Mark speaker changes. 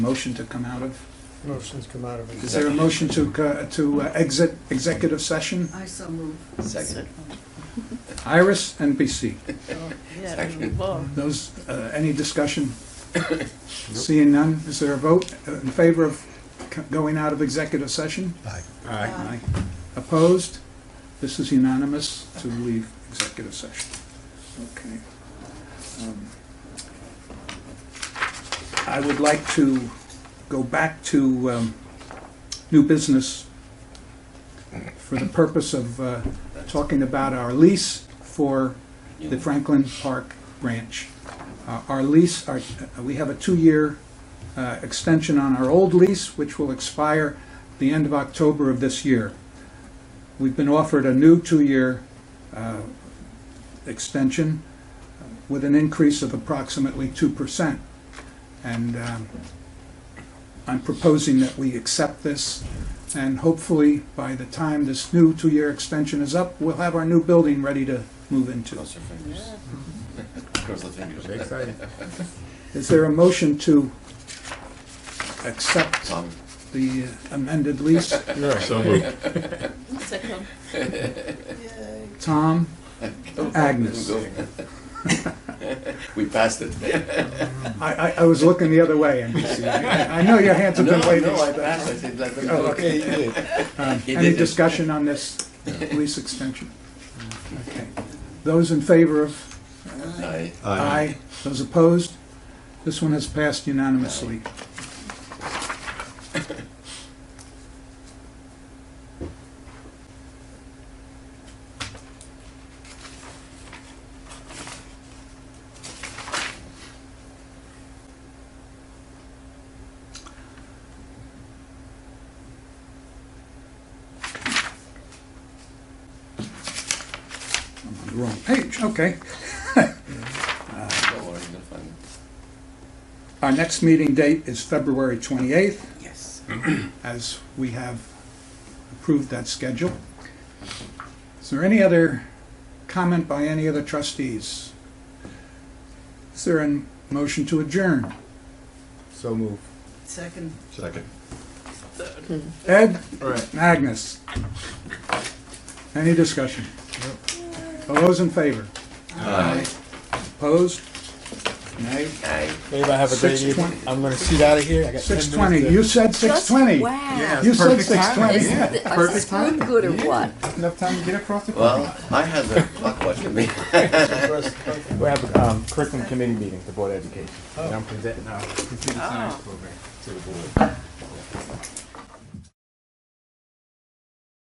Speaker 1: motion to come out of?
Speaker 2: Motion's come out of
Speaker 1: Is
Speaker 2: it.
Speaker 1: there a motion to, co- to uh, exit executive session?
Speaker 3: I so move.
Speaker 4: Second.
Speaker 1: Iris and BC.
Speaker 4: Second.
Speaker 1: Those, uh, any discussion? Seeing none, is there a vote uh, in favor of c- going out of executive session?
Speaker 2: Aye.
Speaker 1: Aye. Opposed? This is unanimous to leave executive session. Okay. Um, I would like to go back to um, new business for the purpose of uh, talking about our lease for the Franklin Park Ranch. Uh, Our lease, our- uh, we have a two-year uh, extension on our old lease, which will expire the end of October of this year. We've been offered a new two-year uh, extension uh, with an increase of approximately 2%. And um, I'm proposing that we accept this, and hopefully, by the time this new two-year extension is up, we'll have our new building ready to move into.
Speaker 4: Cross your fingers. Cross the fingers.
Speaker 1: Is there a motion to accept
Speaker 4: Tom,
Speaker 1: the amended lease?
Speaker 5: So moved.
Speaker 3: Second.
Speaker 1: Tom, Agnes.
Speaker 4: go. We passed it.
Speaker 1: I, I, I was looking the other way, NBC. I I know your hands have
Speaker 4: No,
Speaker 1: been waiting.
Speaker 4: no, I passed, I said, let them
Speaker 1: Oh,
Speaker 4: go.
Speaker 1: okay, Um,
Speaker 4: He
Speaker 1: Any
Speaker 4: did it.
Speaker 1: discussion on this lease extension? Okay. Those in favor of?
Speaker 4: Aye.
Speaker 1: Aye. Those opposed? This one has passed unanimously. I'm on the wrong page, okay.
Speaker 4: Don't worry, you'll find it.
Speaker 1: Our next meeting date is February 28th,
Speaker 3: Yes.
Speaker 1: as we have approved that schedule. Is there any other comment by any other trustees? Is there a motion to adjourn?
Speaker 5: So moved.
Speaker 3: Second.
Speaker 5: Second.
Speaker 1: Ed,
Speaker 5: All right.
Speaker 1: Agnes? Any discussion? All those in favor? Aye. Opposed? Nay?
Speaker 4: Aye.
Speaker 5: Babe, I have a great
Speaker 1: 6:20.
Speaker 5: evening. I'm gonna seat out of here. I got 10 minutes
Speaker 1: 620,
Speaker 5: to-
Speaker 1: you said 620.
Speaker 3: Wow.
Speaker 1: You said
Speaker 5: perfect
Speaker 1: 620,
Speaker 5: timing.
Speaker 3: Isn't
Speaker 1: yeah.
Speaker 3: it, is this good, good or what?
Speaker 5: Enough time to get across the.
Speaker 4: Well, I had the clock watching me.
Speaker 5: We have a um, curriculum committee meeting,
Speaker 1: Oh.
Speaker 5: the uh, Board of Education. And I'm presenting our computer science program to the board.